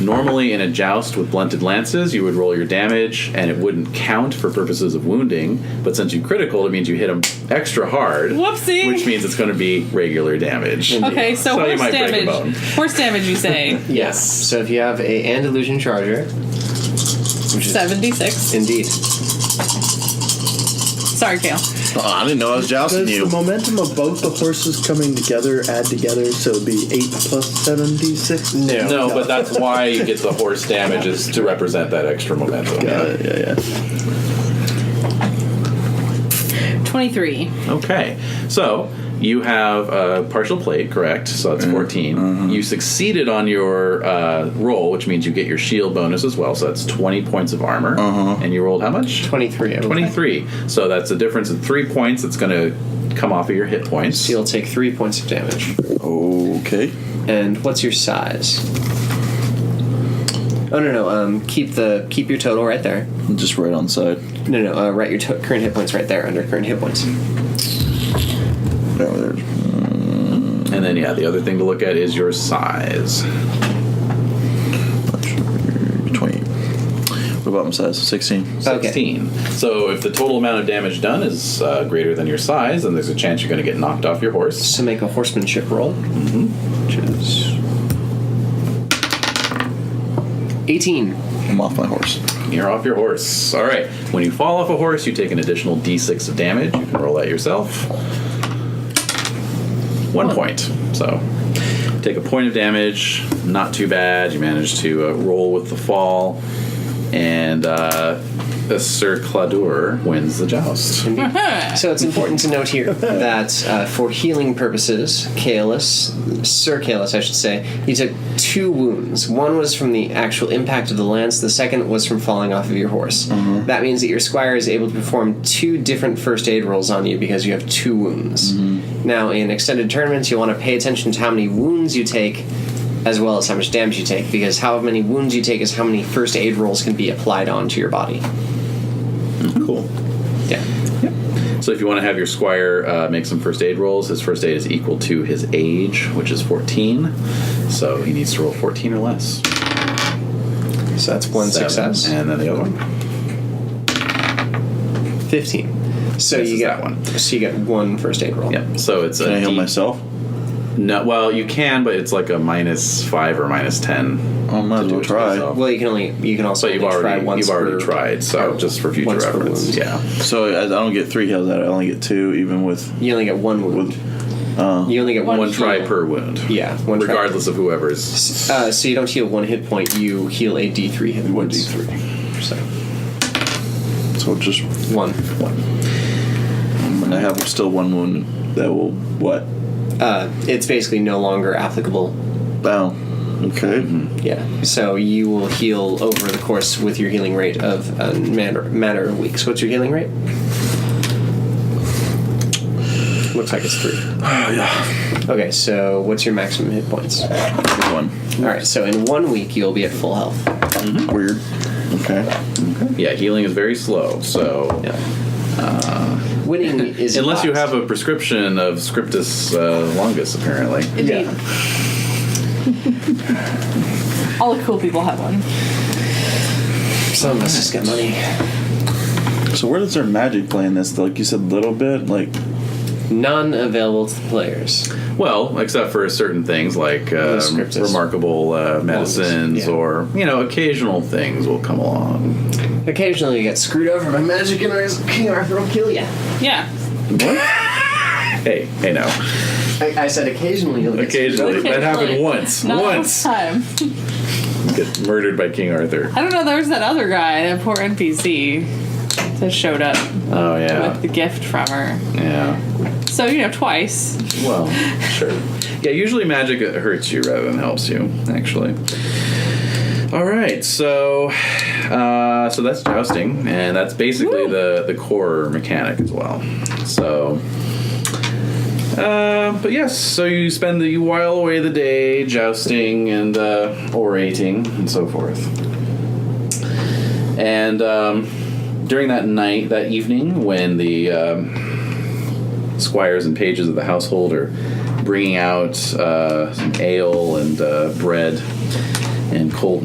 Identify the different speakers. Speaker 1: normally in a joust with blunted lances, you would roll your damage and it wouldn't count for purposes of wounding. But since you critical, it means you hit them extra hard.
Speaker 2: Whoopsie.
Speaker 1: Which means it's going to be regular damage.
Speaker 2: Okay, so,
Speaker 1: So you
Speaker 2: horse
Speaker 1: might break a bone.
Speaker 2: damage. Horse damage, you say?
Speaker 3: Yes. So if you have a and illusion charger, which is
Speaker 2: Seventy-six.
Speaker 3: indeed.
Speaker 2: Sorry, Kale.
Speaker 4: Oh, I didn't know I was jousting
Speaker 5: Does
Speaker 4: you.
Speaker 5: the momentum of both the horses coming together add together, so it'd be 8 plus 76?
Speaker 3: No.
Speaker 1: No, but that's why you get the horse damage is to represent that extra momentum.
Speaker 5: Yeah, yeah, yeah.
Speaker 2: Twenty-three.
Speaker 1: Okay, so you have a partial plate, correct? So
Speaker 4: Mm-hmm.
Speaker 1: that's 14. You succeeded on your uh, roll, which means you get your shield bonus as well. So that's 20 points of armor.
Speaker 4: Uh-huh.
Speaker 1: And you rolled how much?
Speaker 3: 23. I believe.
Speaker 1: 23. So that's a difference of three points. It's going to come off of your hit points.
Speaker 3: So you'll take three points of damage.
Speaker 4: Okay.
Speaker 3: And what's your size? Oh no no. Um, keep the keep your total right there.
Speaker 4: Just right on side.
Speaker 3: No no. Uh, write your to- current hit points right there under current hit points.
Speaker 4: There, there.
Speaker 1: And then, yeah, the other thing to look at is your size.
Speaker 4: That should be 20. What about my size? 16.
Speaker 1: 16. So if the total amount of damage done is uh, greater than your size, then there's a chance you're going to get knocked off your horse.
Speaker 3: So make a horsemanship roll, mm-hmm. which is eighteen.
Speaker 4: I'm off my horse.
Speaker 1: You're off your horse. All right. When you fall off a horse, you take an additional d6 of damage. You can roll that yourself. One point. So take a point of damage. Not too bad. You manage to uh, roll with the fall. And uh, Sir Cladur wins the joust.
Speaker 3: So it's important to note here that uh, for healing purposes, Kaelis, Sir Kaelis, I should say, he took two wounds. One was from the actual impact of the lance. The second was from falling off of your horse. That means that your squire is able to perform two different first aid rolls on you because you have two wounds. Now, in extended tournaments, you want to pay attention to how many wounds you take. As well as how much damage you take, because how many wounds you take is how many first aid rolls can be applied onto your body.
Speaker 1: Hmm. Cool.
Speaker 3: Yeah.
Speaker 1: So if you want to have your squire uh, make some first aid rolls, his first aid is equal to his age, which is 14. So he needs to roll 14 or less.
Speaker 3: So that's one
Speaker 1: Seven.
Speaker 3: success.
Speaker 1: And then the other one.
Speaker 3: 15. So
Speaker 1: This
Speaker 3: you
Speaker 1: is
Speaker 3: get
Speaker 1: that one.
Speaker 3: So you get one first aid roll.
Speaker 1: Yep. So it's
Speaker 4: Can
Speaker 1: a
Speaker 4: I heal
Speaker 1: D-
Speaker 4: myself?
Speaker 1: No, well, you can, but it's like a minus five or minus ten.
Speaker 4: I might as
Speaker 1: do
Speaker 4: well
Speaker 1: it
Speaker 4: try.
Speaker 1: yourself.
Speaker 3: Well, you can only you can also
Speaker 1: So you've
Speaker 3: only try
Speaker 1: already
Speaker 3: once
Speaker 1: you've already
Speaker 3: per-
Speaker 1: tried. So
Speaker 3: or
Speaker 1: just for future
Speaker 3: once per
Speaker 1: reference,
Speaker 3: wound.
Speaker 1: yeah.
Speaker 4: So I, I don't get three heals out. of it, I only get two, even with.
Speaker 3: You only get one wound. you only get one, uh,
Speaker 1: One, try
Speaker 3: heal.
Speaker 1: per wound.
Speaker 3: Yeah, one try.
Speaker 1: regardless of whoever's.
Speaker 3: Uh, so you don't heal one hit point. You heal a D three hit
Speaker 4: One
Speaker 3: points.
Speaker 4: d3. So just
Speaker 3: One.
Speaker 4: one. I have still one wound that will what?
Speaker 3: Uh, it's basically no longer applicable.
Speaker 4: Bow. Okay.
Speaker 1: Mm-hmm.
Speaker 3: Yeah. So you will heal over the course with your healing rate of a matter matter of weeks. What's your healing rate? Looks like it's three.
Speaker 4: Oh yeah.
Speaker 3: Okay, so what's your maximum hit points? All
Speaker 4: One.
Speaker 3: right, so in one week you'll be at full health.
Speaker 1: Mm-hmm.
Speaker 4: Weird. Okay.
Speaker 1: Yeah, healing is very slow. So
Speaker 3: Uh, Winning is
Speaker 1: unless you
Speaker 3: hot.
Speaker 1: have a prescription of Scriptus uh, longus, apparently.
Speaker 2: Indeed. All the cool people have one.
Speaker 3: some of us just get money.
Speaker 4: So where does their magic play in this? Like you said, little bit. Like
Speaker 3: None available to the players.
Speaker 1: Well, except for certain things like um,
Speaker 3: Scriptus.
Speaker 1: remarkable uh, medicines
Speaker 3: yeah.
Speaker 1: or you know occasional things will come along.
Speaker 3: Occasionally you get screwed over by magic and Rise- King Arthur will kill you.
Speaker 2: Yeah.
Speaker 1: Hey, hey now.
Speaker 3: I, I said occasionally you'll get
Speaker 1: Occasionally. That happened
Speaker 2: Occasionally.
Speaker 1: once.
Speaker 2: Not all the
Speaker 1: once.
Speaker 2: time.
Speaker 1: Get murdered by King Arthur.
Speaker 2: I don't know. There was that other guy, that poor NPC, that showed up
Speaker 1: Oh, yeah.
Speaker 2: with the gift from her.
Speaker 1: Yeah.
Speaker 2: So you know, twice.
Speaker 1: Well, sure. Yeah, usually magic uh, hurts you rather than helps you, actually. All right, so uh, so that's jousting, and that's basically
Speaker 2: Woo.
Speaker 1: the the core mechanic as well. So, uh, but yes, so you spend the you while away the day jousting and uh, orating and so forth. And um, during that night, that evening, when the um, squires and pages of the household are bringing out uh, some ale and uh, bread and cold